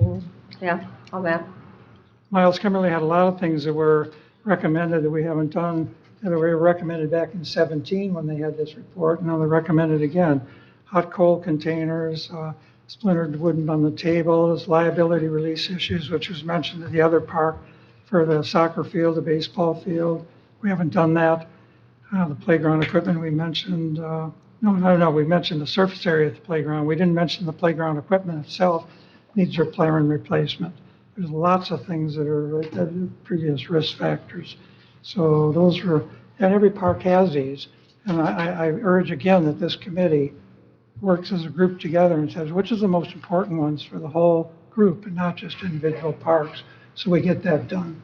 Mm, Yeah, all that. Miles Kimmerly had a lot of things that were recommended that we haven't done, that were recommended back in 17 when they had this report, and now they're recommended again. Hot coal containers, uh, splintered wooden on the tables, liability release issues, which was mentioned at the other park for the soccer field, the baseball field. We haven't done that. Uh, The playground equipment, we mentioned, uh, no, no, no, we mentioned the surface area at the playground. We didn't mention the playground equipment itself needs repair and replacement. There's lots of things that are, right there, the previous risk factors. So those were, and every park has these. And I, I- I urge again that this committee works as a group together and says, which is the most important ones for the whole group and not just individual parks? So we get that done.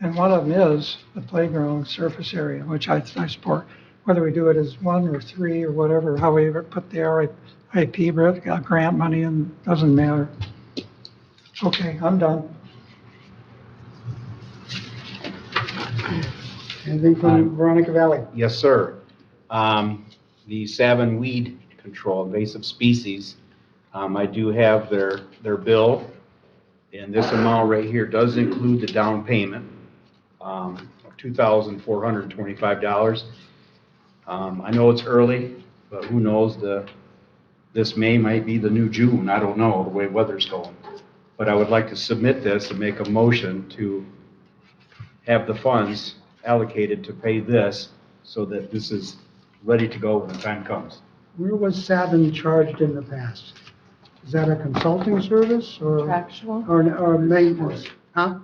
And one of them is the playground surface area, which I, I support. Whether we do it as one or three or whatever, how we ever put the RIP grant- uh, grant money in, doesn't matter. Okay, I'm done. Anything from Veronica Valley? Um, Yes, sir. Um, The Savin Weed Control invasive species, um, I do have their, their bill. And this amount right here does include the down payment um, of $2,425. Um, I know it's early, but who knows, the, this May might be the new June, I don't know, the way weather's going. But I would like to submit this and make a motion to have the funds allocated to pay this so that this is ready to go when the time comes. Where was Savin charged in the past? Is that a consulting service or, Contractual? or, or maintenance? Huh?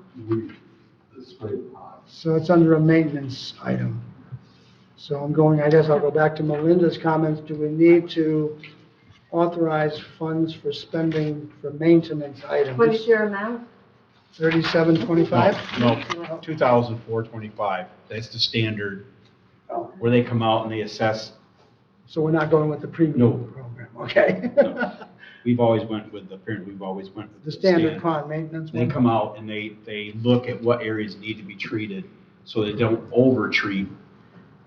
So it's under a maintenance item. So I'm going, I guess I'll go back to Melinda's comments. Do we need to authorize funds for spending for maintenance What is items? your amount? Thirty-seven twenty-five? No, two thousand four twenty-five, that's the standard, where they come out and they assess. So we're not going with the No. premium program, okay? No. We've always went with, the parent, we've always went with The the standard standard. pond maintenance. They one? come out and they, they look at what areas need to be treated, so they don't over-treat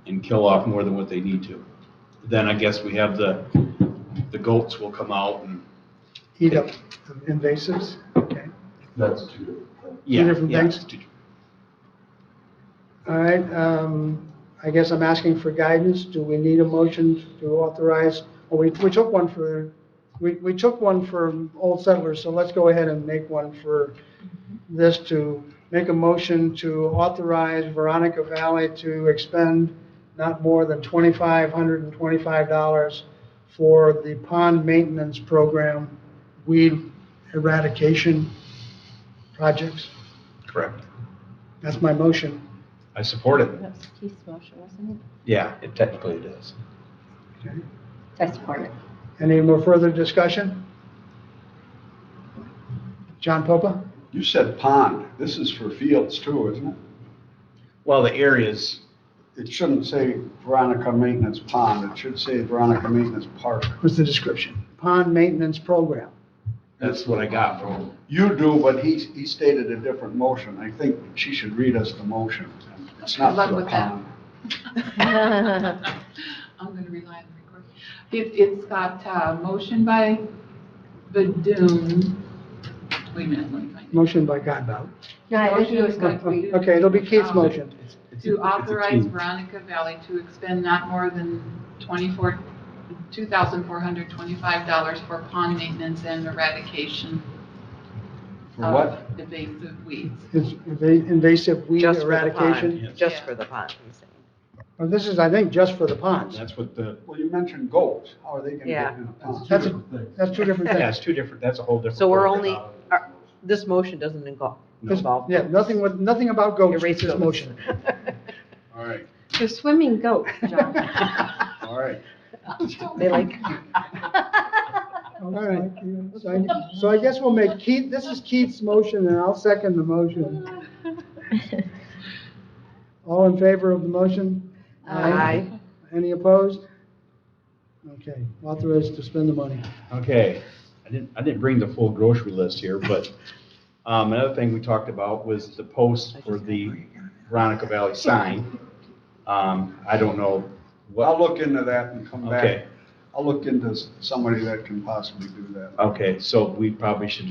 and kill off more than what they need to. Then I guess we have the, the goats will come out and, Heat up invasives, okay. That's two different things. yeah. different yeah, things? All right, um, I guess I'm asking for guidance. Do we need a motion to authorize? Well, we, we took one for, we, we took one for Old Settlers, so let's go ahead and make one for this to make a motion to authorize Veronica Valley to expend not more than twenty-five hundred and twenty-five dollars for the pond maintenance program, weed eradication projects. Correct. That's my motion. I support it. That's Keith's motion, wasn't Yeah, it technically it is. Okay. it? I support it. Any more further discussion? John Popa? You said pond. This is for fields too, isn't it? Well, the areas, It shouldn't say Veronica Maintenance Pond. It should say Veronica Maintenance Park. was the description. Pond maintenance program. that's what I got from, You do, but he, he stated a different motion. I think she should read us the motion. It's not Good luck for the with that. pond. I'm going to rely on the recording. It, it's got uh motion by Badun. Wait a minute, let me find it. Motion by Godbout. No, I think he Motion was is going going, to be. Okay, it'll be Keith's um, motion. To authorize team. Veronica Valley to expend not more than twenty-four, two thousand four hundred twenty-five dollars for pond maintenance and eradication For what? of invasive weeds. It's inva- invasive weed Just for the eradication. Yes. pond, just Yeah. for the pond, he's saying. Well, this is, I think, just for the ponds. that's what the, Well, you mentioned goats. How are they gonna Yeah. get in a pond? That's, a- that's two different yeah, things. it's two different, that's a whole different. Uh, So we're program. only, are- this motion doesn't involve, No. involve. Yeah, nothing with, nothing about goats, erase this those. motion. All right, they're swimming goats, John. all right. They like, All right. So I- So I guess we'll make Keith, this is Keith's motion, and I'll second the motion. All in favor of the motion? aye. Any opposed? Okay, authorized to spend the money. Okay, I didn't, I didn't bring the full grocery list here, but um, another thing we talked about was the post for the Veronica Valley sign. Um, I don't know I'll what, look into that and come Okay. back. I'll look into s- somebody that can possibly do that. okay, so we probably should